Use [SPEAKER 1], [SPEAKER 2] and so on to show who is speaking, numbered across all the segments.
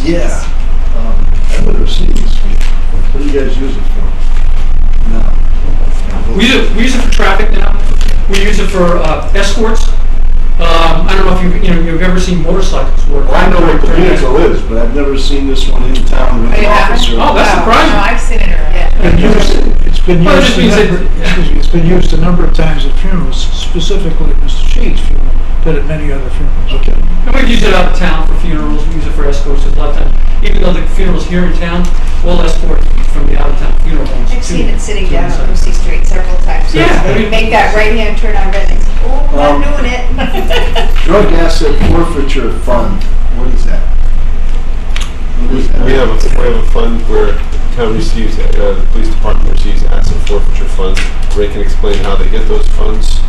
[SPEAKER 1] Yeah. Um, I would have seen this one. What do you guys use it for? No.
[SPEAKER 2] We use it, we use it for traffic now. We use it for uh, escorts. Um, I don't know if you've, you know, you've ever seen motorcycles work.
[SPEAKER 1] Well, Oh, I know what the vehicle is, but I've never seen this one in town with
[SPEAKER 3] Oh,
[SPEAKER 1] an
[SPEAKER 3] you haven't?
[SPEAKER 1] officer.
[SPEAKER 2] Oh, that's
[SPEAKER 3] Wow.
[SPEAKER 2] surprising.
[SPEAKER 3] No, I've seen it around.
[SPEAKER 4] Been used- It's been
[SPEAKER 2] Well, it just
[SPEAKER 4] used, a
[SPEAKER 2] means
[SPEAKER 4] number-
[SPEAKER 2] it-
[SPEAKER 4] excuse me, it's been used a number of times at funerals, specifically at Mr. Sheets' funeral, but at many other funerals.
[SPEAKER 1] Okay.
[SPEAKER 2] And we use it out of town for funerals, we use it for escorts a lot of times. Even though the funeral's here in town, we'll escort from the out-of-town funeral homes.
[SPEAKER 3] I've seen
[SPEAKER 2] to-
[SPEAKER 3] it sitting
[SPEAKER 2] to the
[SPEAKER 3] down
[SPEAKER 2] site.
[SPEAKER 3] on Lucy Street several times.
[SPEAKER 2] Yeah.
[SPEAKER 3] They Make that right hand turn on red, and say, oh, I'm
[SPEAKER 1] Um,
[SPEAKER 3] doing it.
[SPEAKER 1] Drug asset forfeiture fund, what is that? What
[SPEAKER 5] We
[SPEAKER 1] is that?
[SPEAKER 5] we have, a we have a fund where the town receives, uh, the police department receives asset forfeiture funds. Ray can explain how they get those funds.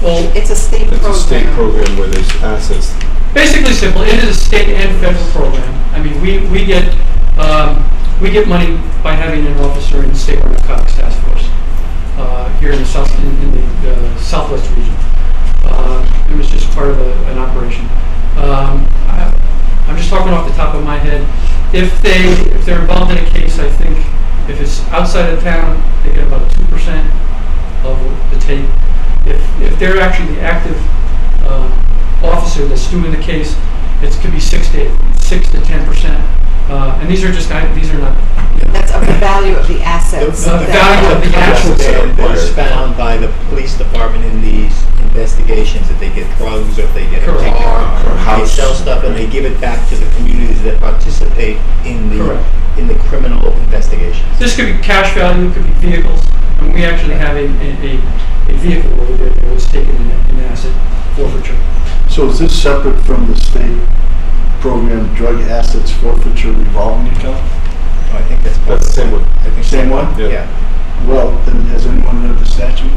[SPEAKER 2] Well,
[SPEAKER 3] It's a state
[SPEAKER 5] It's a state
[SPEAKER 3] program.
[SPEAKER 5] program where there's assets.
[SPEAKER 2] basically simple, it is a state and federal program. I mean, we, we get, um, we get money by having an officer in the state narcotics task force, uh, here in the south, in, in the uh, southwest region. Uh, it was just part of a, an operation. Um, I, I'm just talking off the top of my head. If they, if they're involved in a case, I think if it's outside of town, they get about two percent of the tape. If, if they're actually the active uh, officer that's doing the case, it could be six to six to ten percent. Uh, and these are just kind- these are not
[SPEAKER 3] That's of the value of the assets.
[SPEAKER 2] The- the
[SPEAKER 3] that-
[SPEAKER 2] value of the actual-
[SPEAKER 6] that was found by the police department in these investigations, that they get drugs or if they get a
[SPEAKER 2] Correct.
[SPEAKER 6] car.
[SPEAKER 5] Or
[SPEAKER 6] They
[SPEAKER 5] house.
[SPEAKER 6] sell stuff and they give it back to the communities that participate in the,
[SPEAKER 2] Correct.
[SPEAKER 6] in the criminal investigations.
[SPEAKER 2] This could be cash value, it could be vehicles, and we actually have a, a, a- a vehicle over there that was taken in in asset forfeiture.
[SPEAKER 1] So is this separate from the state program drug assets forfeiture revolving account?
[SPEAKER 6] Oh, I think that's.
[SPEAKER 5] That's the same one.
[SPEAKER 6] I think
[SPEAKER 1] Same
[SPEAKER 6] so.
[SPEAKER 1] one?
[SPEAKER 5] Yeah.
[SPEAKER 6] Yeah,
[SPEAKER 1] Well, then has anyone read the statute?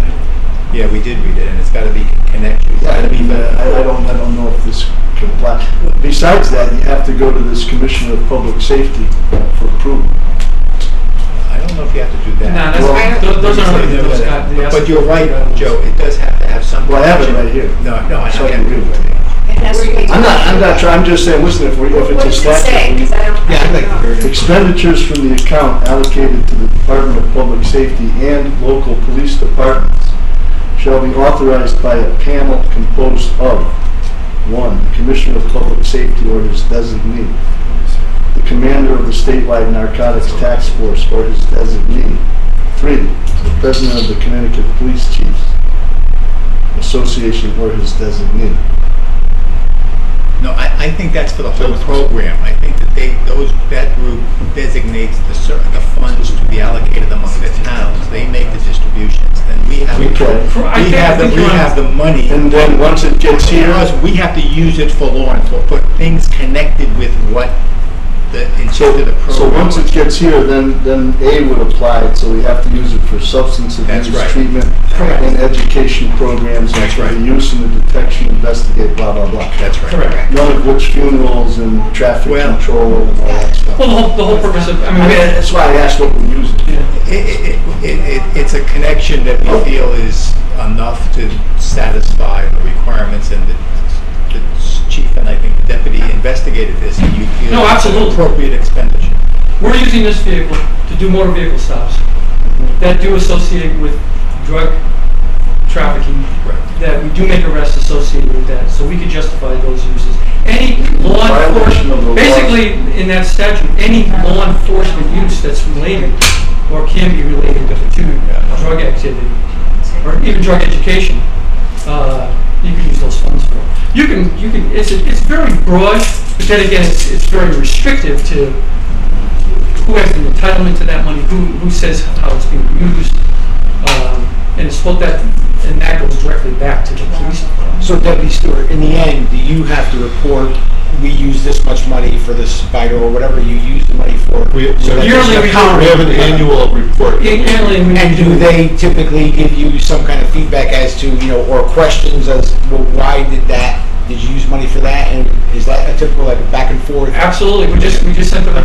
[SPEAKER 6] yeah, we did read it and it's gotta be connected. It's
[SPEAKER 1] Yeah,
[SPEAKER 6] gotta
[SPEAKER 1] I
[SPEAKER 6] be
[SPEAKER 1] mean, uh, I I don't, I don't know if this complies. Besides that, you have to go to this Commissioner of Public Safety for approval.
[SPEAKER 6] I don't know if you have to do
[SPEAKER 2] No,
[SPEAKER 6] that.
[SPEAKER 2] that's,
[SPEAKER 1] Well,
[SPEAKER 2] tho- those are, those got the
[SPEAKER 6] But
[SPEAKER 2] asset
[SPEAKER 6] you're right,
[SPEAKER 2] forfeiture.
[SPEAKER 6] Joe, it does have to have some.
[SPEAKER 1] Well, I have it right here.
[SPEAKER 6] No, no, I
[SPEAKER 1] So
[SPEAKER 6] know.
[SPEAKER 1] I can read it.
[SPEAKER 3] It has to be-
[SPEAKER 1] I'm not, I'm not trying, I'm just saying, listen, if we, if
[SPEAKER 3] What
[SPEAKER 1] it's a
[SPEAKER 3] does it say?
[SPEAKER 1] statute. we-
[SPEAKER 3] 'Cause I don't-
[SPEAKER 6] Yeah, I'd like to hear it.
[SPEAKER 1] Expenditures from the account allocated to the Department of Public Safety and local police departments shall be authorized by a panel composed of, one, the Commissioner of Public Safety or his designee, the commander of the statewide narcotics task force or his designee, three, the president of the Connecticut Police Chiefs Association or his designee.
[SPEAKER 6] No, I, I think that's for the whole program. I think that they, those, that group designates the cer, the funds to be allocated among the towns. They make the distributions, then we have,
[SPEAKER 1] We
[SPEAKER 6] we
[SPEAKER 1] can-
[SPEAKER 2] I think-
[SPEAKER 6] have,
[SPEAKER 2] I
[SPEAKER 6] the
[SPEAKER 2] think
[SPEAKER 6] we
[SPEAKER 2] you're on-
[SPEAKER 6] have the money.
[SPEAKER 1] And then once it gets here.
[SPEAKER 6] Because we have to use it for law enforcement, for things connected with what the
[SPEAKER 1] So,
[SPEAKER 6] intent of the program.
[SPEAKER 1] so once it
[SPEAKER 6] was.
[SPEAKER 1] gets here, then, then A would apply, so we have to use it for substance
[SPEAKER 6] That's
[SPEAKER 1] abuse
[SPEAKER 6] right.
[SPEAKER 1] treatment
[SPEAKER 2] Correct.
[SPEAKER 1] and education programs and
[SPEAKER 6] That's
[SPEAKER 1] for
[SPEAKER 6] right.
[SPEAKER 1] the use and the detection, investigate, blah, blah, blah.
[SPEAKER 6] That's right.
[SPEAKER 2] Correct.
[SPEAKER 1] None of which funerals and traffic
[SPEAKER 6] Well-
[SPEAKER 1] control and all that stuff.
[SPEAKER 2] Well, the whole, the whole purpose of, I
[SPEAKER 1] I
[SPEAKER 2] mean,
[SPEAKER 1] mean, that's why I asked what we use it.
[SPEAKER 2] yeah.
[SPEAKER 6] It, it, it, it, it's a connection that we feel is enough to satisfy the requirements and the, the chief and I think the deputy investigated this and you feel.
[SPEAKER 2] No,
[SPEAKER 6] it's an
[SPEAKER 2] absolutely.
[SPEAKER 6] Appropriate expenditure.
[SPEAKER 2] We're using this vehicle to do motor vehicle stops that do associate with drug trafficking,
[SPEAKER 6] Correct.
[SPEAKER 2] that we do make arrests associated with that, so we could justify those uses. Any law
[SPEAKER 1] Violation of the
[SPEAKER 2] enforcement,
[SPEAKER 1] law.
[SPEAKER 2] basically, in that statute, any law enforcement use that's related or can be related to drug activity, or even drug education, uh, you can use those funds for. You can, you can, it's, it's very broad, but then again, it's, it's very restrictive to who has the entitlement to that money, who, who says how it's being used, um, and it's what that, and that goes directly back to the police.
[SPEAKER 7] So Deputy Stewart, in the end, do you have to report, we use this much money for this spider or whatever you use the money for?
[SPEAKER 5] We, we
[SPEAKER 7] So that there's
[SPEAKER 2] Yearly
[SPEAKER 7] an
[SPEAKER 2] we do-
[SPEAKER 7] account-
[SPEAKER 5] we have an annual report.
[SPEAKER 2] Yeah, Apparently, we
[SPEAKER 7] And do they typically give you some kind of feedback as to, you know, or questions as, well, why did that, did you use money for that? And is that a typical, like, back and forth?
[SPEAKER 2] Absolutely, we just, we just sent them a